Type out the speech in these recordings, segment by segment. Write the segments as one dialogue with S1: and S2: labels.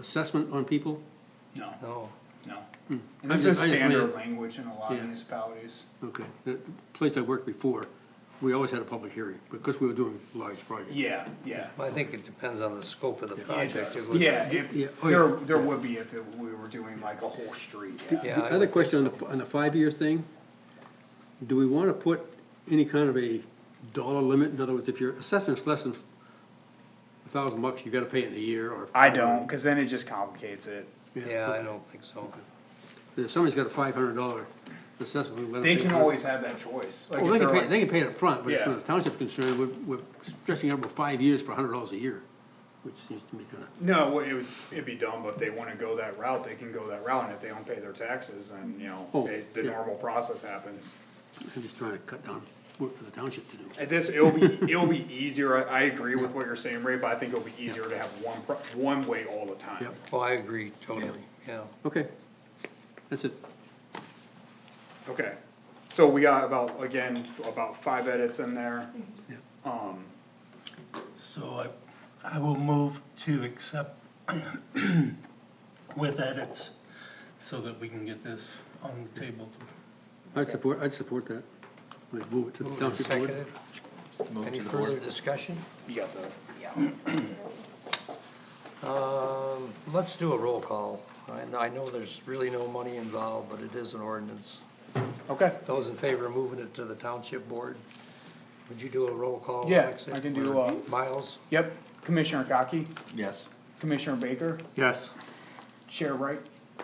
S1: assessment on people?
S2: No,
S3: No,
S2: no. And this
S1: Hmm. I
S2: is
S1: just- I just
S2: standard
S1: read-
S2: language in a lot of
S1: Yeah.
S2: municipalities.
S1: Okay, the place I worked before, we always had a public hearing, because we were doing large projects.
S2: Yeah, yeah.
S3: I think it depends on the scope of the
S2: Yeah, it
S3: project.
S2: does.
S3: It would-
S2: Yeah, if-
S1: Yeah, oh, yeah.
S2: there, there would be if it- we were doing like a whole street, yeah.
S3: Yeah, I
S1: The
S3: would
S1: other
S3: think
S1: question on the, on the five-year thing, do we wanna put any kind of a dollar limit? In other words, if your assessment's less than a thousand bucks, you gotta pay it in a year, or.
S2: I don't, cause then it just complicates it.
S3: Yeah, I don't think so.
S1: If somebody's got a five hundred dollar assessment, we let them.
S2: They
S1: pay
S2: can
S1: it.
S2: always have that choice. Like
S1: Well, they can
S2: if they're
S1: pay,
S2: like-
S1: they can pay it upfront, but
S2: Yeah.
S1: from the township's concerned, we're, we're stretching it over five years for a hundred dollars a year, which seems to me kinda,
S2: No, well, it would, it'd be dumb, but if they wanna go that route, they can go that route, and if they don't pay their taxes, then, you know,
S1: Oh,
S2: it- the
S1: yeah.
S2: normal process happens.
S1: I'm just trying to cut down work for the township to do.
S2: At this, it'll be, it'll be easier, I, I agree with what you're saying, Ray, but I think it'll be easier to have one, pro- one way all the time.
S1: Yep.
S3: Well, Oh, I agree totally, yeah.
S1: Okay, that's it.
S2: Okay, so we got about, again, about five edits in there.
S4: So I, I will move to accept with edits so that we can get this on the table.
S1: I'd support, I'd support that. Like move it to the
S3: Moved and
S1: township board.
S3: seconded. Any further discussion?
S2: You got the.
S3: Um, let's do a roll call. And I know there's really no money involved, but it is an ordinance.
S2: Okay.
S3: Those in favor of moving it to the township board, would you do a roll call?
S2: Yeah,
S3: Alexis,
S2: I can do,
S3: or
S2: uh,
S3: Miles?
S2: Yep, Commissioner Gaki,
S4: Yes.
S2: Commissioner Baker,
S1: Yes.
S2: Chair Wright,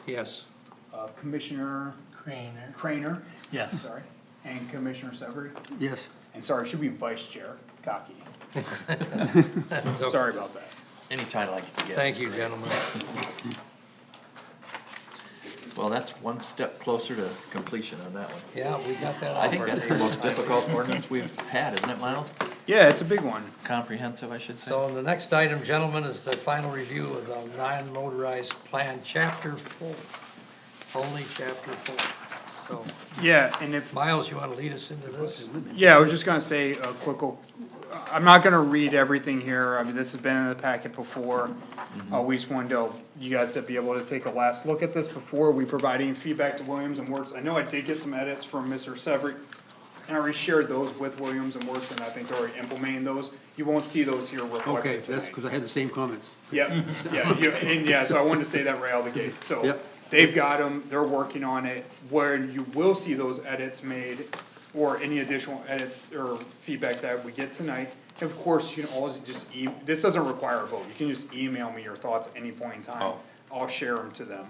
S3: Yes.
S2: uh, Commissioner
S4: Crainer?
S2: Crainer,
S4: Yes.
S2: sorry, and Commissioner Severie.
S1: Yes,
S2: And sorry, it should be Vice Chair Gaki.
S3: So,
S2: Sorry about that.
S5: Any title I can get.
S3: Thank you, gentlemen.
S5: Well, that's one step closer to completion on that one.
S3: Yeah, we got that
S5: I
S3: off
S5: think
S3: our
S5: that's the
S3: table.
S5: most difficult ordinance we've had, isn't it, Miles?
S2: Yeah, it's a big one.
S5: Comprehensive, I should say.
S3: So the next item, gentlemen, is the final review of the non-motorized plan, chapter four. Only chapter four. So,
S2: Yeah, and if,
S3: Miles, you wanna lead us into this?
S2: yeah, I was just gonna say a quick, o- I'm not gonna read everything here, I mean, this has been in the packet before.
S1: Mm-hmm.
S2: Uh, we just wanted to, you guys to be able to take a last look at this before we provide any feedback to Williams and Works. I know I did get some edits from Mr. Severie, and I reshared those with Williams and Works, and I think they're already implementing those. You won't see those here
S1: okay,
S2: reflected
S1: that's
S2: tonight.
S1: because I had the same comments.
S2: Yep, yeah, you- and yeah, so I wanted to say that right out of the gate, so,
S1: Yep.
S2: they've got them, they're working on it, where you will see those edits made, or any additional edits or feedback that we get tonight, of course, you can always just e- this doesn't require a vote, you can just email me your thoughts at any point in time,
S5: Oh.
S2: I'll share them to them.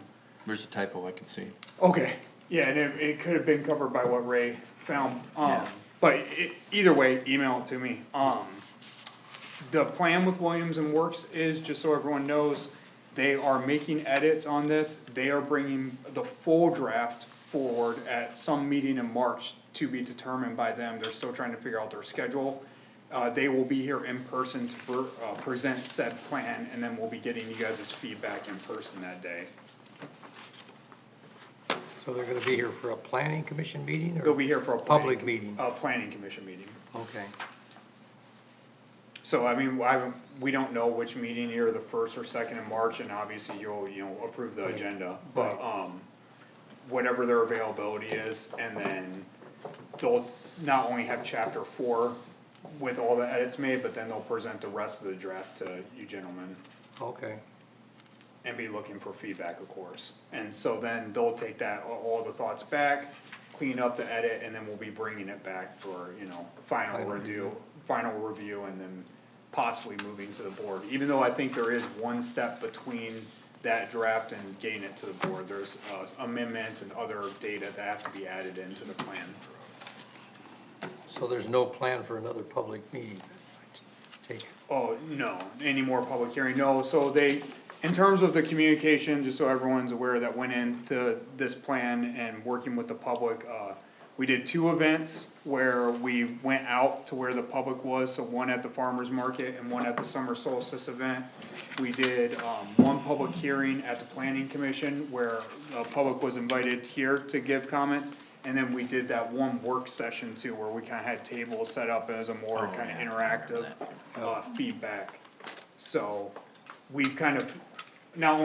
S5: There's a typo I can see.
S2: Okay, yeah, and it, it could have been covered by what Ray found, um,
S5: Yeah.
S2: but e- either way, email it to me, um. The plan with Williams and Works is, just so everyone knows, they are making edits on this, they are bringing the full draft forward at some meeting in March to be determined by them, they're still trying to figure out their schedule. Uh, they will be here in person to per, uh, present said plan, and then we'll be getting you guys' feedback in person that day.
S3: So they're gonna be here for a planning commission meeting or?
S2: They'll be here for a. planning-
S3: Public meeting.
S2: A planning commission meeting.
S3: Okay,
S2: So I mean, I, haven't- we don't know which meeting here, the first or second in March, and obviously you'll, you know, approve the agenda. But, um, whatever their availability is, and then they'll not only have chapter four with all the edits made, but then they'll present the rest of the draft to you gentlemen.
S3: okay,
S2: and be looking for feedback, of course. And so then they'll take that, all- all the thoughts back, clean up the edit, and then we'll be bringing it back for, you know, final
S3: Final
S2: review, final review, and then possibly moving to the board. Even though I think there is one step between that draft and getting it to the board, there's uh, amendments and other data that have to be added into the plan.
S3: so there's no plan for another public meeting? Take,
S2: Oh, no, any more public hearing, no, so they, in terms of the communication, just so everyone's aware that went into this plan and working with the public, uh, we did two events where we went out to where the public was, so one at the farmer's market and one at the summer solstice event. We did, um, one public hearing at the planning commission where the public was invited here to give comments. And then we did that one work session too, where we kinda had tables set up as a more kinda interactive, uh, feedback. So, we've kind of, not